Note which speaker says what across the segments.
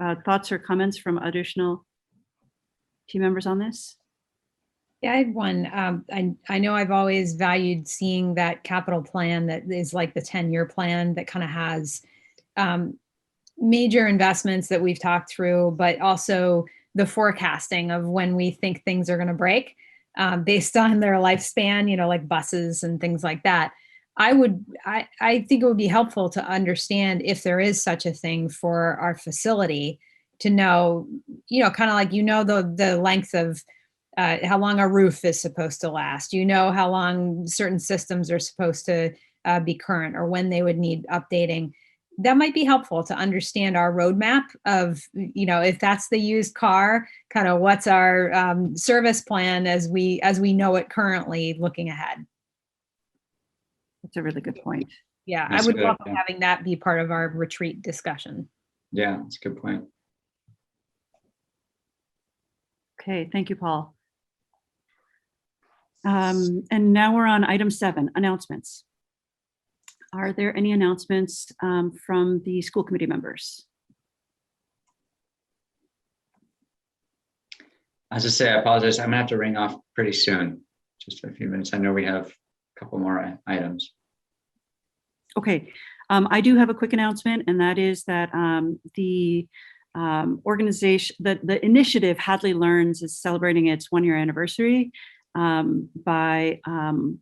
Speaker 1: Uh, Thoughts or comments from additional team members on this?
Speaker 2: Yeah, I had one. Um, I, I know I've always valued seeing that capital plan that is like the 10-year plan that kind of has um, major investments that we've talked through, but also the forecasting of when we think things are going to break um, based on their lifespan, you know, like buses and things like that. I would, I, I think it would be helpful to understand if there is such a thing for our facility to know, you know, kind of like, you know, the, the length of uh, how long a roof is supposed to last. You know how long certain systems are supposed to uh, be current or when they would need updating. That might be helpful to understand our roadmap of, you know, if that's the used car, kind of what's our um, service plan as we as we know it currently looking ahead.
Speaker 1: That's a really good point.
Speaker 2: Yeah,
Speaker 3: That's
Speaker 2: I would
Speaker 3: good,
Speaker 2: love
Speaker 3: yeah.
Speaker 2: having that be part of our retreat discussion.
Speaker 3: Yeah, that's a good point.
Speaker 1: Okay, thank you, Paul. Um, And now we're on item seven, announcements. Are there any announcements um, from the school committee members?
Speaker 3: As I say, I apologize. I'm gonna have to ring off pretty soon, just a few minutes. I know we have a couple more i- items.
Speaker 1: Okay, um, I do have a quick announcement, and that is that um, the um, organization, the, the initiative Hadley Learns is celebrating its one-year anniversary um, by um,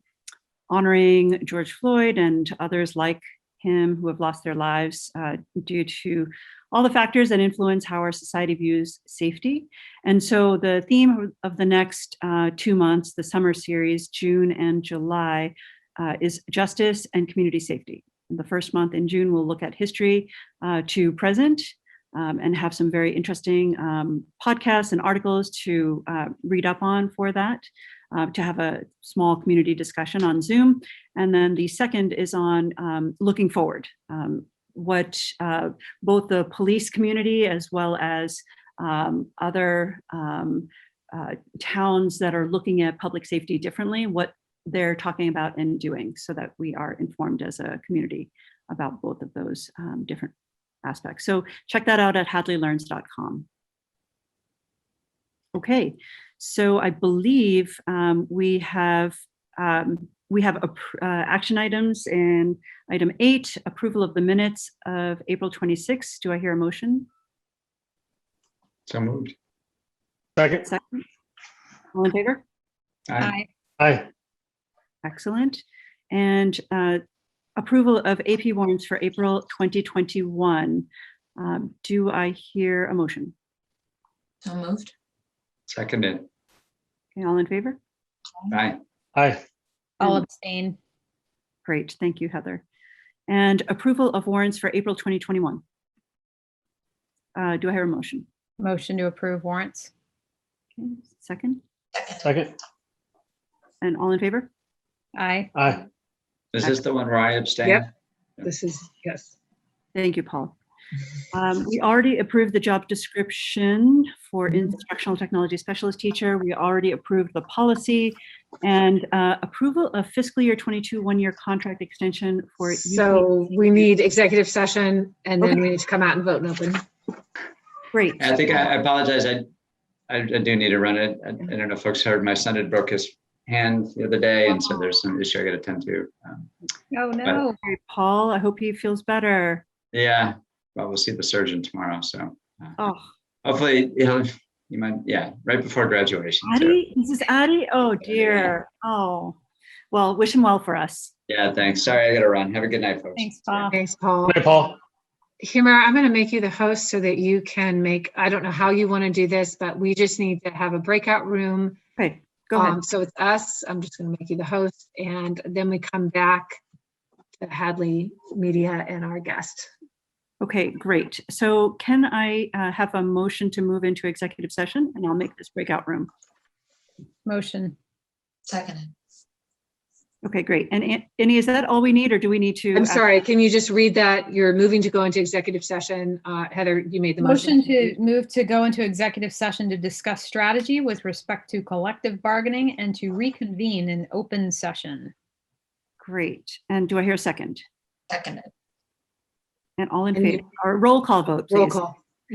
Speaker 1: honoring George Floyd and others like him who have lost their lives uh, due to all the factors that influence how our society views safety. And so the theme of the next uh, two months, the summer series, June and July, uh, is justice and community safety. The first month in June, we'll look at history uh, to present um, and have some very interesting um, podcasts and articles to uh, read up on for that, uh, to have a small community discussion on Zoom. And then the second is on um, looking forward, um, what uh, both the police community as well as um, other um, uh, towns that are looking at public safety differently, what they're talking about and doing so that we are informed as a community about both of those um, different aspects. So check that out at hadleylearns.com. Okay, so I believe um, we have um, we have appr- uh, action items and item eight, approval of the minutes of April 26. Do I hear a motion?
Speaker 3: So moved.
Speaker 4: Second,
Speaker 1: Second? All in favor?
Speaker 3: Aye.
Speaker 2: Aye.
Speaker 4: aye,
Speaker 1: Excellent. And uh, approval of AP warrants for April 2021. Um, Do I hear a motion?
Speaker 5: So moved.
Speaker 3: Seconded.
Speaker 1: Okay, all in favor?
Speaker 3: Aye.
Speaker 4: aye,
Speaker 2: I'll
Speaker 1: And-
Speaker 2: abstain.
Speaker 1: Great, thank you, Heather. And approval of warrants for April 2021. Uh, Do I hear a motion?
Speaker 2: Motion to approve warrants.
Speaker 1: Okay, Second,
Speaker 5: Second.
Speaker 4: second,
Speaker 1: and all in favor?
Speaker 2: Aye.
Speaker 4: aye,
Speaker 3: Is this the one where I abstained?
Speaker 6: Yep. This is, yes.
Speaker 1: Thank you, Paul. Um, We already approved the job description for
Speaker 3: Mm-hmm.
Speaker 1: instructional technology specialist teacher. We already approved the policy and uh, approval of fiscal year 22 one-year contract extension for. UP.
Speaker 6: So we need executive session and then
Speaker 1: Okay.
Speaker 6: we need to come out and vote and open.
Speaker 1: Great.
Speaker 3: I think I I apologize. I, I I do need to run it. I I don't know if folks heard, my son had broke his hand the other day, and so there's some issue I gotta tend to. Um,
Speaker 2: Oh, no.
Speaker 1: Okay, Paul, I hope he feels better.
Speaker 3: Yeah, well, we'll see the surgeon tomorrow, so uh,
Speaker 1: Oh,
Speaker 3: hopefully, you know, you might, yeah, right before graduation. too.
Speaker 1: Addie, this is Addie. Oh, dear. Oh, well, wish him well for us.
Speaker 3: Yeah, thanks. Sorry, I gotta run. Have a good night, folks.
Speaker 2: Thanks, Paul.
Speaker 6: Thanks, Paul.
Speaker 4: aye, Paul,
Speaker 6: Humira, I'm going to make you the host so that you can make, I don't know how you want to do this, but we just need to have a breakout room.
Speaker 1: Okay, go ahead.
Speaker 6: Um, So it's us. I'm just going to make you the host and then we come back to Hadley Media and our guest.
Speaker 1: Okay, great. So can I uh, have a motion to move into executive session? And I'll make this breakout room.
Speaker 2: Motion.
Speaker 5: Seconded.
Speaker 1: Okay, great. And An- Annie, is that all we need or do we need to?
Speaker 6: I'm
Speaker 1: act-
Speaker 6: sorry, can you just read that? You're moving to go into executive session. Uh, Heather, you made the motion.
Speaker 2: Motion to move to go into executive session to discuss strategy with respect to collective bargaining and to reconvene in open session.
Speaker 1: Great. And do I hear a second?
Speaker 5: Seconded.
Speaker 1: And all in
Speaker 6: And you-
Speaker 1: favor, or roll call vote,
Speaker 6: Roll
Speaker 1: please.
Speaker 6: call.